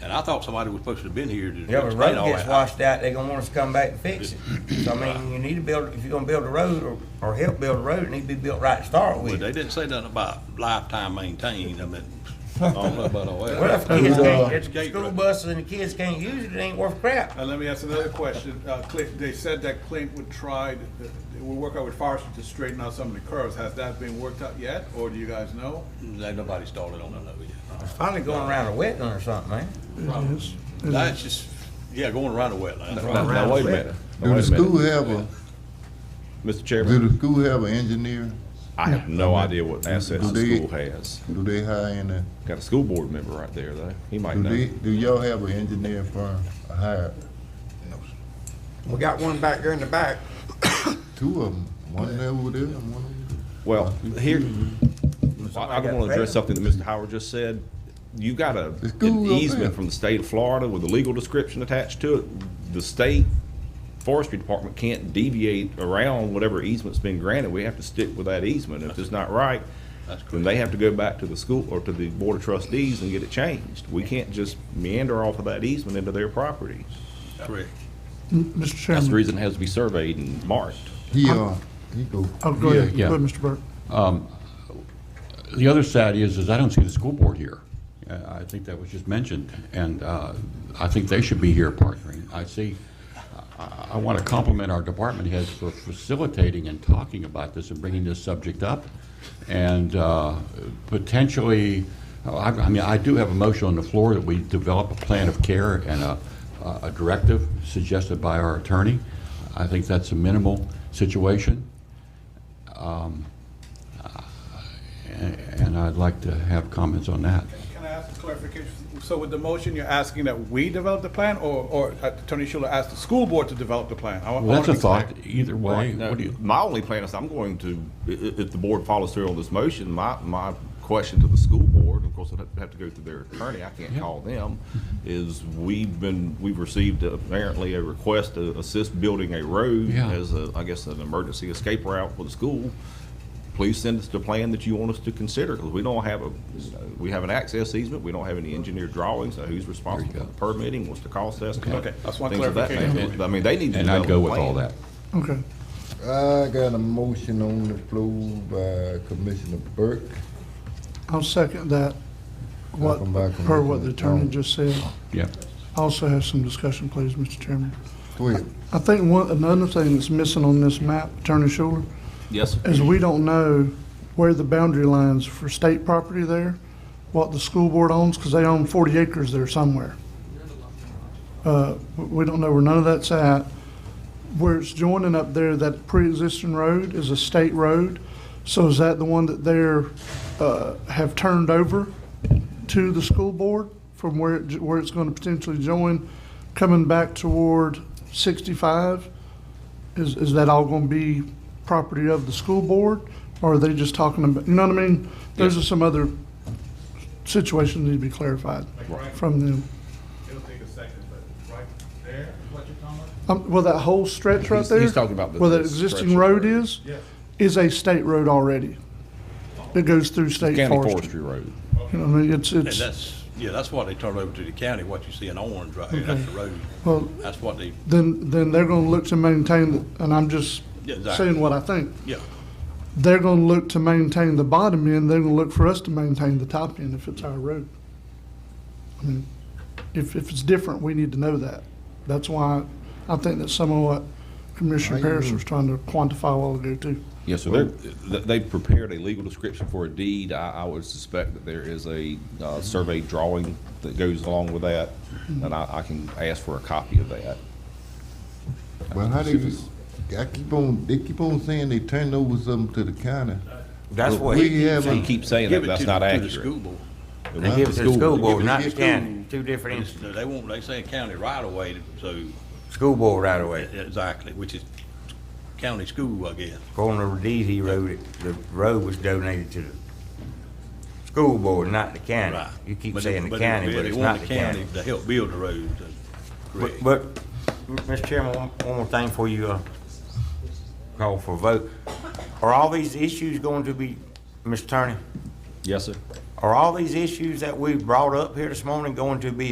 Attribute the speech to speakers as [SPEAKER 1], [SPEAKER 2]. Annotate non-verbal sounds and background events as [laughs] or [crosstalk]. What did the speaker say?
[SPEAKER 1] And I thought somebody was supposed to have been here to
[SPEAKER 2] Yeah, but
[SPEAKER 1] explain
[SPEAKER 2] road
[SPEAKER 1] all
[SPEAKER 2] gets
[SPEAKER 1] that.
[SPEAKER 2] washed out, they gonna want us to come back and fix it. So I mean, you need to build, if you're gonna build a road or, or help build a road, it need to be built right to start
[SPEAKER 1] But
[SPEAKER 2] with.
[SPEAKER 1] they didn't say nothing about lifetime maintained,
[SPEAKER 2] [laughs]
[SPEAKER 1] I mean, I don't know about all
[SPEAKER 2] Well, if
[SPEAKER 1] that. oh,
[SPEAKER 2] the kids can't, if the
[SPEAKER 1] Gate
[SPEAKER 2] school
[SPEAKER 1] road.
[SPEAKER 2] buses and the kids can't use it, it ain't worth crap.
[SPEAKER 3] Uh, let me ask another question. Uh, Clint, they said that Clint would try, to- they would work out with Forrester to straighten out some of the curves. Has that been worked out yet, or do you guys know?
[SPEAKER 1] Ain't nobody started on that yet.
[SPEAKER 2] It's finally going around a wetland or something, man.
[SPEAKER 1] That's just, yeah, going around the
[SPEAKER 4] Now,
[SPEAKER 1] wetland.
[SPEAKER 4] now, wait a minute. Now,
[SPEAKER 5] Do the
[SPEAKER 4] wait a minute.
[SPEAKER 5] school have a,
[SPEAKER 4] Mr.
[SPEAKER 5] do
[SPEAKER 4] Chairman,
[SPEAKER 5] the school have an engineer?
[SPEAKER 4] I have no idea what assets the
[SPEAKER 5] Do they-
[SPEAKER 4] school has.
[SPEAKER 5] Do they hire in a,
[SPEAKER 4] Got a school board member right there, though. He might
[SPEAKER 5] do
[SPEAKER 4] know.
[SPEAKER 5] they, do y'all have an engineer firm hired?
[SPEAKER 6] We got one back there in the back.
[SPEAKER 5] Two of them, one over there and one over there.
[SPEAKER 4] Well, here, I I
[SPEAKER 2] got
[SPEAKER 4] don't want to
[SPEAKER 2] paid.
[SPEAKER 4] address something that Mr. Howard just said. You got a,
[SPEAKER 5] It's
[SPEAKER 4] an
[SPEAKER 5] cool up there.
[SPEAKER 4] easement from the state of Florida with a legal description attached to it. The state forestry department can't deviate around whatever easement's been granted. We have to stick with that easement. If it's not right,
[SPEAKER 1] That's correct.
[SPEAKER 4] then they have to go back to the school or to the board of trustees and get it changed. We can't just meander off of that easement into their property.
[SPEAKER 1] Correct.
[SPEAKER 7] Mr.
[SPEAKER 4] That's the
[SPEAKER 7] Chairman.
[SPEAKER 4] reason it has to be surveyed and marked.
[SPEAKER 5] He, uh, he go.
[SPEAKER 7] Oh, go ahead,
[SPEAKER 5] yeah.
[SPEAKER 7] go ahead, Mr. Burke.
[SPEAKER 8] The other side is, is I don't see the school board here. Uh, I think that was just mentioned, and uh, I think they should be here partnering. I see, I want to compliment our department heads for facilitating and talking about this and bringing this subject up. And uh, potentially, oh, I I mean, I do have a motion on the floor that we develop a plan of care and a a directive suggested by our attorney. I think that's a minimal situation. And I'd like to have comments on that.
[SPEAKER 3] Can I ask a clarification? So with the motion, you're asking that we develop the plan, or, or Attorney Schuler asked the school board to develop the plan? I wa- I
[SPEAKER 8] Well, that's a
[SPEAKER 3] wanna be clear.
[SPEAKER 8] thought, either way.
[SPEAKER 4] Now,
[SPEAKER 8] What do you,
[SPEAKER 4] My only plan is I'm going to, i- i- if the board follows through on this motion, my, my question to the school board, of course, I'd have to go through their attorney, I can't call them, is we've been, we've received apparently a request to assist building a road
[SPEAKER 8] Yeah.
[SPEAKER 4] as a, I guess, an emergency escape route for the school. Please send us the plan that you want us to consider, because we don't have a, we have an access easement, we don't have any engineered drawings, so who's responsible
[SPEAKER 8] go.
[SPEAKER 4] for permitting, what's the cost estimate?
[SPEAKER 3] Okay, that's one
[SPEAKER 4] things of that
[SPEAKER 3] clarification.
[SPEAKER 4] nature. I mean, they need to
[SPEAKER 8] and I'd
[SPEAKER 4] develop
[SPEAKER 8] go
[SPEAKER 4] a
[SPEAKER 8] with all
[SPEAKER 4] plan.
[SPEAKER 8] that.
[SPEAKER 7] Okay.
[SPEAKER 5] I got a motion on the floor by Commissioner Burke.
[SPEAKER 7] I'll second that, what,
[SPEAKER 5] Welcome back, Oh.
[SPEAKER 7] per what the
[SPEAKER 5] Commissioner.
[SPEAKER 7] attorney just said.
[SPEAKER 8] Yeah.
[SPEAKER 7] Also have some discussion, please, Mr. Chairman.
[SPEAKER 5] Go ahead.
[SPEAKER 7] I think one, another thing that's missing on this map, Attorney Schuler,
[SPEAKER 4] Yes, sir.
[SPEAKER 7] is we don't know where the boundary lines for state property there, what the school board owns, because they own 40 acres there somewhere. Uh, w- We don't know where none of that's at. Where it's joining up there, that pre-existing road is a state road. So is that the one that they're, uh, have turned over to the school board from where, it j- where it's going to potentially join, coming back toward 65? Is, is that all going to be property of the school board? Or are they just talking about, you know what I mean? Those are some other situations that need to be clarified from them.
[SPEAKER 3] It'll take a second, but right there is what you're talking about?
[SPEAKER 7] Um, Well, that whole stretch right
[SPEAKER 4] He's-
[SPEAKER 7] there?
[SPEAKER 4] he's talking about the-
[SPEAKER 7] Where that
[SPEAKER 4] the
[SPEAKER 7] existing
[SPEAKER 4] stretch of
[SPEAKER 7] road
[SPEAKER 4] road.
[SPEAKER 7] is?
[SPEAKER 3] Yes.
[SPEAKER 7] Is a state road already. It goes through state
[SPEAKER 4] County
[SPEAKER 7] forest.
[SPEAKER 4] Forestry Road.
[SPEAKER 7] You know, what I mean, it's,
[SPEAKER 1] And
[SPEAKER 7] it's,
[SPEAKER 1] that's, yeah, that's what they turned over to the county, what you see in orange right here, that's the road.
[SPEAKER 7] well,
[SPEAKER 1] That's what they,
[SPEAKER 7] then, then they're gonna look to maintain, the- and I'm just
[SPEAKER 1] Yeah, exactly.
[SPEAKER 7] saying what I think.
[SPEAKER 1] yeah,
[SPEAKER 7] They're gonna look to maintain the bottom end, they're gonna look for us to maintain the top end if it's our road. I mean, If, if it's different, we need to know that. That's why I think that's some of what Commissioner Parrish was trying to quantify a while ago too.
[SPEAKER 4] Yeah, so they're, th- they've prepared a legal description for a deed. I, I would suspect that there is a, uh, survey drawing that goes along with that, and I, I can ask for a copy of that.
[SPEAKER 5] Well, how they, I keep on, they keep on saying they turned over something to the county.
[SPEAKER 6] That's
[SPEAKER 5] But
[SPEAKER 6] what
[SPEAKER 5] we
[SPEAKER 6] he,
[SPEAKER 5] have
[SPEAKER 4] They
[SPEAKER 5] a-
[SPEAKER 4] keep saying
[SPEAKER 1] give
[SPEAKER 4] that,
[SPEAKER 1] it
[SPEAKER 4] that's
[SPEAKER 1] to,
[SPEAKER 4] not
[SPEAKER 1] the- to the school
[SPEAKER 4] accurate.
[SPEAKER 1] board.
[SPEAKER 6] they give it to the school board, not the county, two
[SPEAKER 1] But
[SPEAKER 6] different,
[SPEAKER 1] it's-
[SPEAKER 6] ins-
[SPEAKER 1] They won't, they say county right of way, so,
[SPEAKER 6] school board right away.
[SPEAKER 1] exactly, which is county school, I guess.
[SPEAKER 6] Corner of DZ Road, it- the road was donated to the school board, not the county.
[SPEAKER 1] Right.
[SPEAKER 6] You keep
[SPEAKER 1] But it-
[SPEAKER 6] saying the
[SPEAKER 1] it-
[SPEAKER 6] county, but
[SPEAKER 1] they
[SPEAKER 6] it's
[SPEAKER 1] want
[SPEAKER 6] not the county.
[SPEAKER 1] To help build the road, uh, correct.
[SPEAKER 6] But, but, Mr. Chairman, one, one more thing before you, uh, call for a vote. Are all these issues going to be, Mr. Attorney,
[SPEAKER 4] Yes, sir.
[SPEAKER 6] are all these issues that we brought up here this morning going to be